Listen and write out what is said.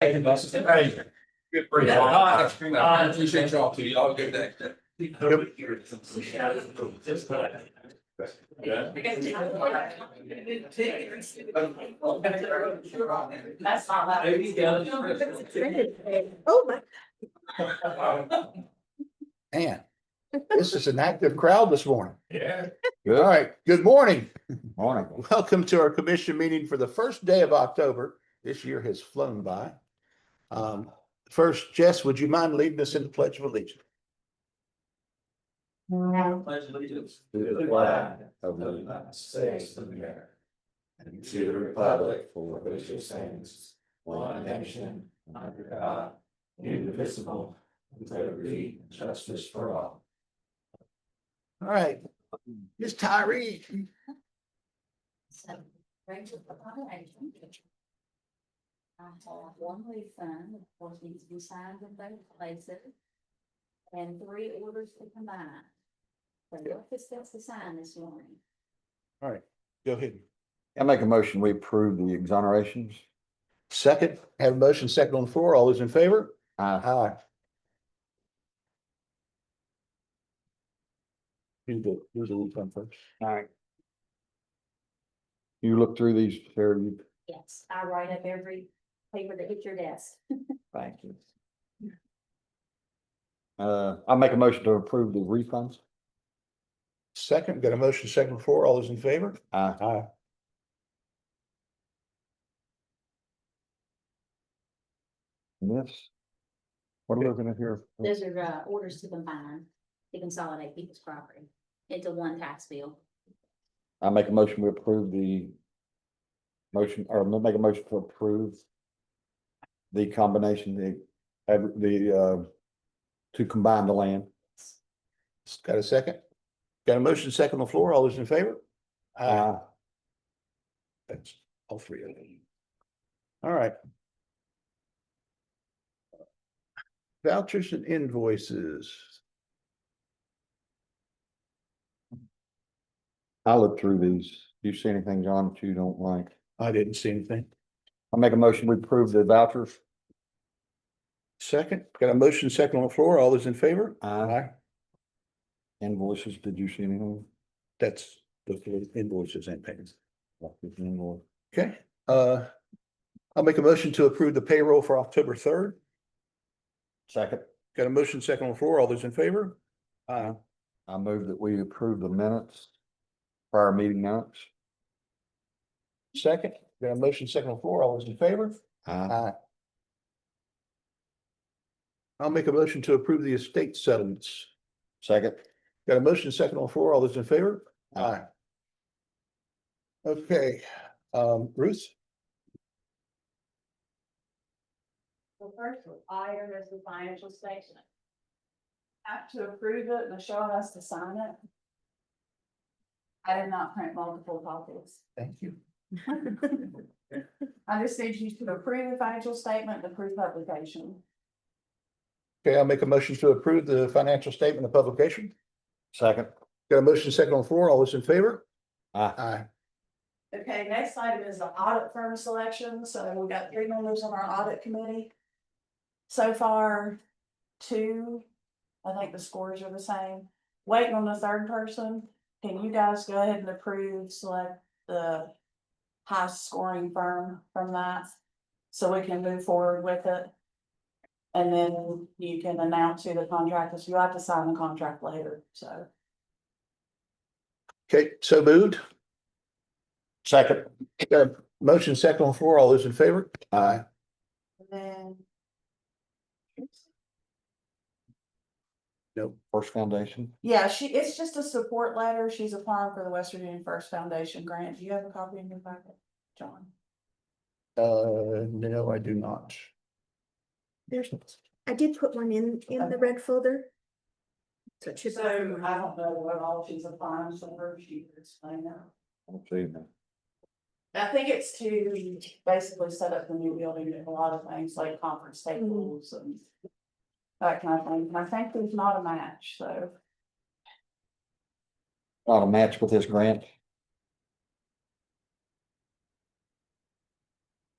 Thank you, boss. Hey. Good break. Uh, I appreciate y'all too. Y'all have a good day. That's not that. Oh, my. Man, this is an active crowd this morning. Yeah. All right, good morning. Morning. Welcome to our commission meeting for the first day of October. This year has flown by. Um, first, Jess, would you mind leading us in the Pledge of Allegiance? Pledge allegiance To the flag of the United States of America. And to the republic for which it stands, one nation, under God, indivisible, with liberty and justice for all. All right, Ms. Tyree. So, right to the bottom, I think it- I have one lease sign, of course, needs to be signed in both places. And three orders to combine. So what is that's to sign this morning? All right, go ahead. I make a motion, we approve the exonerations. Second, have a motion second on the floor. All those in favor? Aye. Aye. You do, you do the one first. You look through these, Sarah, you, Yes, I write up every paper that hits your desk. Thank you. uh, I make a motion to approve the refunds. Second, got a motion second on the floor. All those in favor? Aye. Aye. Yes. What are we looking at here? Mm-hmm. Those are uh, orders to combine, to consolidate people's property into one tax bill. I make a motion, we approve the motion, or ma- make a motion to approve the combination, the, ad- the, uh, to combine the land. Got a second? Got a motion second on the floor. All those in favor? Aye. Aye. That's all three of them. All right. Vouchers and invoices. I look through these. Do you see anything, John, that you don't like? I didn't see anything. I make a motion, we approve the vouchers. Second, got a motion second on the floor. All those in favor? Aye. Invoices, did you see anything? That's the three invoices and payments. Invoice. Okay, uh, I'll make a motion to approve the payroll for October third. Second. Got a motion second on the floor. All those in favor? Aye. I move that we approve the minutes, prior meeting minutes. Second, got a motion second on the floor. All those in favor? Aye. Aye. I'll make a motion to approve the estate settlements. Second. Got a motion second on the floor. All those in favor? Aye. Okay, um, Ruth, The first was item is the financial statement. Have to approve it, Michelle has to sign it. I did not print multiple copies. thank you. I just need you to approve the financial statement, the proof publication. Okay, I'll make a motion to approve the financial statement of publication. Second. Got a motion second on the floor. All those in favor? Aye. Aye. Okay, next item is the audit firm selection, so we've got three members on our audit committee. So far, two, I think the scores are the same, waiting on the third person, can you guys go ahead and approve, select the. High scoring firm from that, so we can move forward with it. And then you can announce who the contract is, you have to sign the contract later, so. Okay, so moved. Second. Got a motion second on the floor. All those in favor? Aye. and Then. Nope. First Foundation. Yeah, she, it's just a support letter. She's applying for the West Virginia First Foundation grant. Do you have a copy in your packet, John? Uh, no, I do not. There's, I did put one in, in the red folder. So it should be- don't know what all she's applying for. She could explain that. I don't see anything. I think it's to basically set up the new building and a lot of things like conference tables and that kind of thing. And I think there's not a match, so. Not a match with this grant.